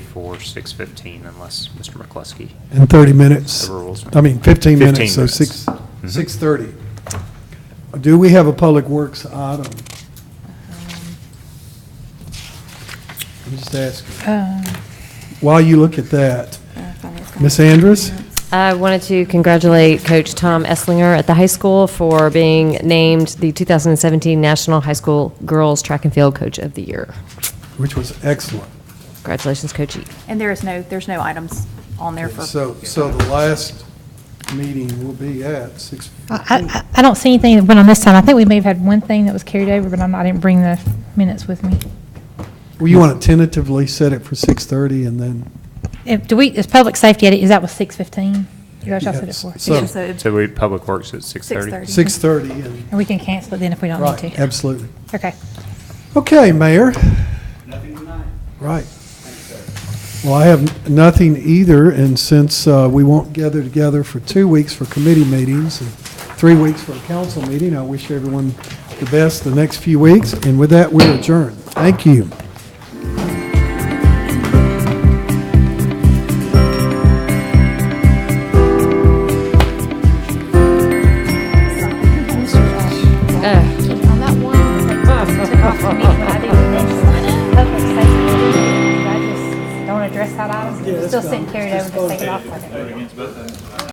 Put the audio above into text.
for 6:15 unless Mr. McCluskey. And 30 minutes. The rules. I mean, 15 minutes, 15 so minutes. 6, Mhm. 6:30. Do we have a Public Works item? I'm just asking. Um, While you look at that, I thought it was gonna Ms. be Andrus? minutes. I wanted to congratulate Coach Tom Esslinger at the high school for being named the 2017 National High School Girls Track and Field Coach of the Year. which was excellent. Congratulations, E. Coachy. And there is no, there's no items on there for. So, so the last meeting will be at 6. Uh, I, I I don't see anything that went on this time. I think we may have had one thing that was carried over, but I'm, I didn't bring the minutes with me. Well, you want to tentatively set it for 6:30 and then, If, do we, is public safety, is that was six fifteen? Y'all said it Yes. for. So- It's just So a- we, Public Works at 6:30? 6:30. 6:30 and, And we can cancel it then if we don't need right, to. absolutely. Okay. Okay, Mayor. Nothing tonight. Right. Well, I have nothing either, and since uh, we won't gather together for two weeks for committee meetings and three weeks for a council meeting, I wish everyone the best the next few weeks, and with that, we adjourn. Thank you. Don't address that item, still sitting carried over, just take it off with it.